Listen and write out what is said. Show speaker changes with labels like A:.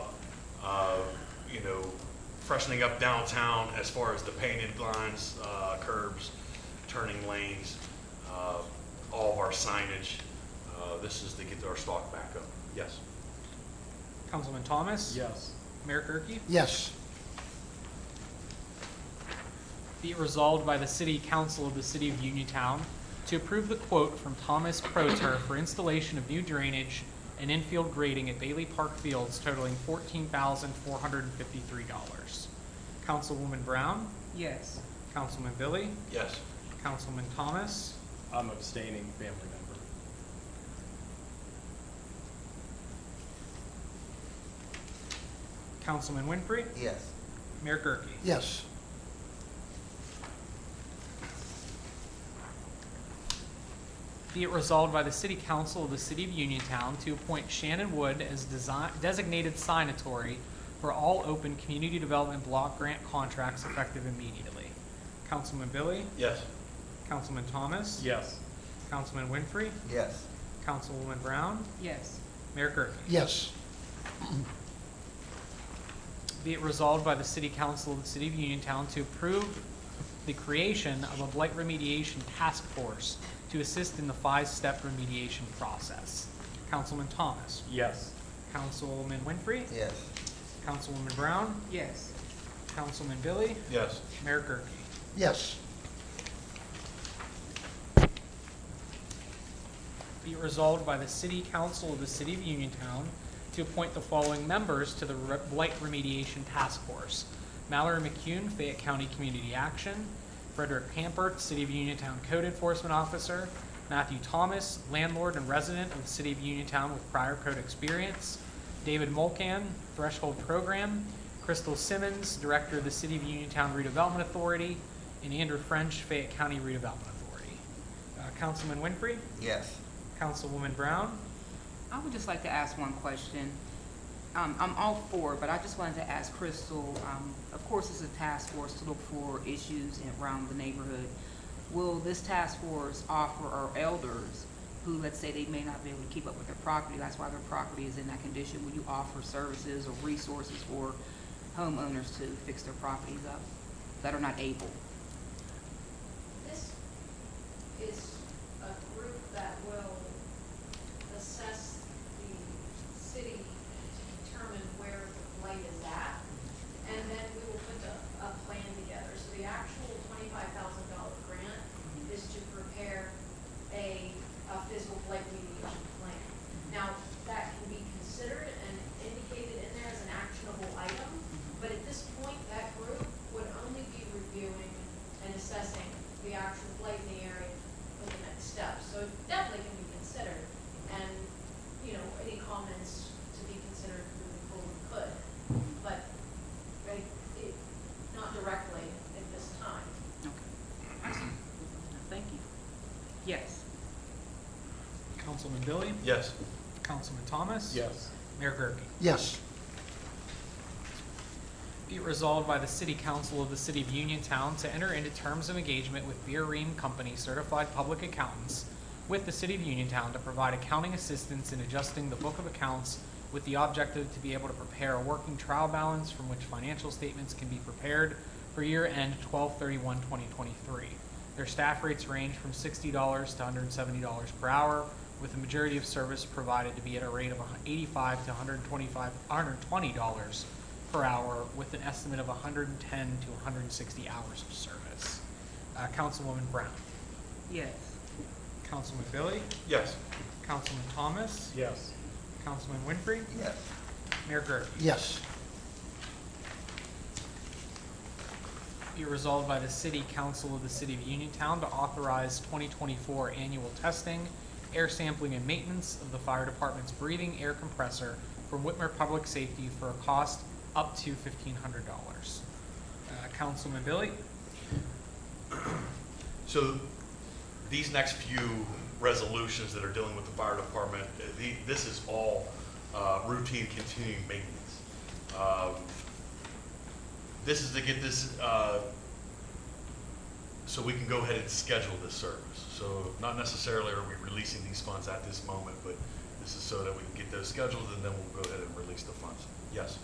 A: freshening up downtown as far as the painted lines, uh, curbs, turning lanes, uh, all of our signage. Uh, This is to get our stock back up. Yes.
B: Councilman Thomas?
C: Yes.
B: Mayor Gurke?
D: Yes.
B: Be it resolved by the City Council of the City of Uniontown to approve the quote from Thomas Proter for installation of new drainage and infield grading at Bailey Park Fields totaling fourteen thousand four hundred and fifty-three dollars. Councilwoman Brown?
E: yes,
B: Councilman Billy?
A: Yes.
B: Councilman Thomas?
C: I'm abstaining, family member.
B: Councilman Winfrey?
D: Yes.
B: Mayor Gurke?
D: Yes.
B: Be it resolved by the City Council of the City of Uniontown to appoint Shannon Wood as design, designated signatory for all open community development block grant contracts effective immediately. Councilman Billy,
A: Yes.
B: Councilman Thomas,
C: Yes.
B: Councilman Winfrey,
D: Yes.
B: Councilwoman Brown,
E: yes,
B: Mayor Gurke.
D: Yes.
B: Be it resolved by the City Council of the City of Uniontown to approve the creation of a blight remediation task force to assist in the five-step remediation process. Councilman Thomas,
C: Yes.
B: Councilman Winfrey,
D: Yes.
B: Councilwoman Brown,
E: yes,
B: Councilman Billy,
A: Yes.
B: Mayor Gurke.
D: Yes.
B: Be it resolved by the City Council of the City of Uniontown to appoint the following members to the Re- Blight Remediation Task Force. Mallory McCune, Fayette County Community Action. Frederick Pampert, City of Uniontown Code Enforcement Officer. Matthew Thomas, landlord and resident of the City of Uniontown with prior code experience. David Mulcan, Threshold Program. Crystal Simmons, Director of the City of Uniontown Redevelopment Authority. And Andrew French, Fayette County Redevelopment Authority. Uh, Councilman Winfrey?
D: Yes.
B: Councilwoman Brown?
E: I would just like to ask one question. Um, I'm all for, it, but I just wanted to ask Crystal, um, of course, it's a task force to look for issues in- around the neighborhood. Will this task force offer our elders, who, let's say, they may not be able to keep up with their property, that's why their property is in that condition, will you offer services or resources for homeowners to fix their properties up that are not able?
F: This is a group that will assess the city to determine where the blight is at, and then we will put a, a plan together. So the actual twenty-five thousand dollar grant is to prepare a, a physical blight mediation plan. Now, that can be considered and indicated in there as an actionable item, but at this point, that group would only be reviewing and assessing the actual blight in the area for the next step. So it definitely can be considered, and, you know, any comments to be considered moving forward could, but, right, it, not directly at this time.
E: Okay. Thank you. Yes,
B: Councilman Billy?
A: Yes.
B: Councilman Thomas?
C: Yes.
B: Mayor Gurke?
D: Yes.
B: Be it resolved by the City Council of the City of Uniontown to enter into terms of engagement with Beer Ream Company Certified Public Accountants with the City of Uniontown to provide accounting assistance in adjusting the book of accounts with the objective to be able to prepare a working trial balance from which financial statements can be prepared for year end 2023. Their staff rates range from sixty dollars to hundred and seventy dollars per hour, with the majority of service provided to be at a rate of eighty-five to hundred and twenty-five, hundred and twenty dollars per hour, with an estimate of hundred and ten to hundred and sixty hours of service. Uh, Councilwoman Brown,
E: yes.
B: Councilman Billy,
A: Yes.
B: Councilman Thomas,
C: Yes.
B: Councilman Winfrey,
D: Yes.
B: Mayor Gurke.
D: Yes.
B: Be resolved by the City Council of the City of Uniontown to authorize 2024 annual testing, air sampling, and maintenance of the fire department's breathing air compressor from Whitmer Public Safety for a cost up to $1,500. Uh, Councilman Billy?
A: So these next few resolutions that are dealing with the fire department, uh, the, this is all uh, routine continuing maintenance. Um, This is to get this, uh, so we can go ahead and schedule this service. So not necessarily are we releasing these funds at this moment, but this is so that we can get those scheduled and then we'll go ahead and release the funds. Yes.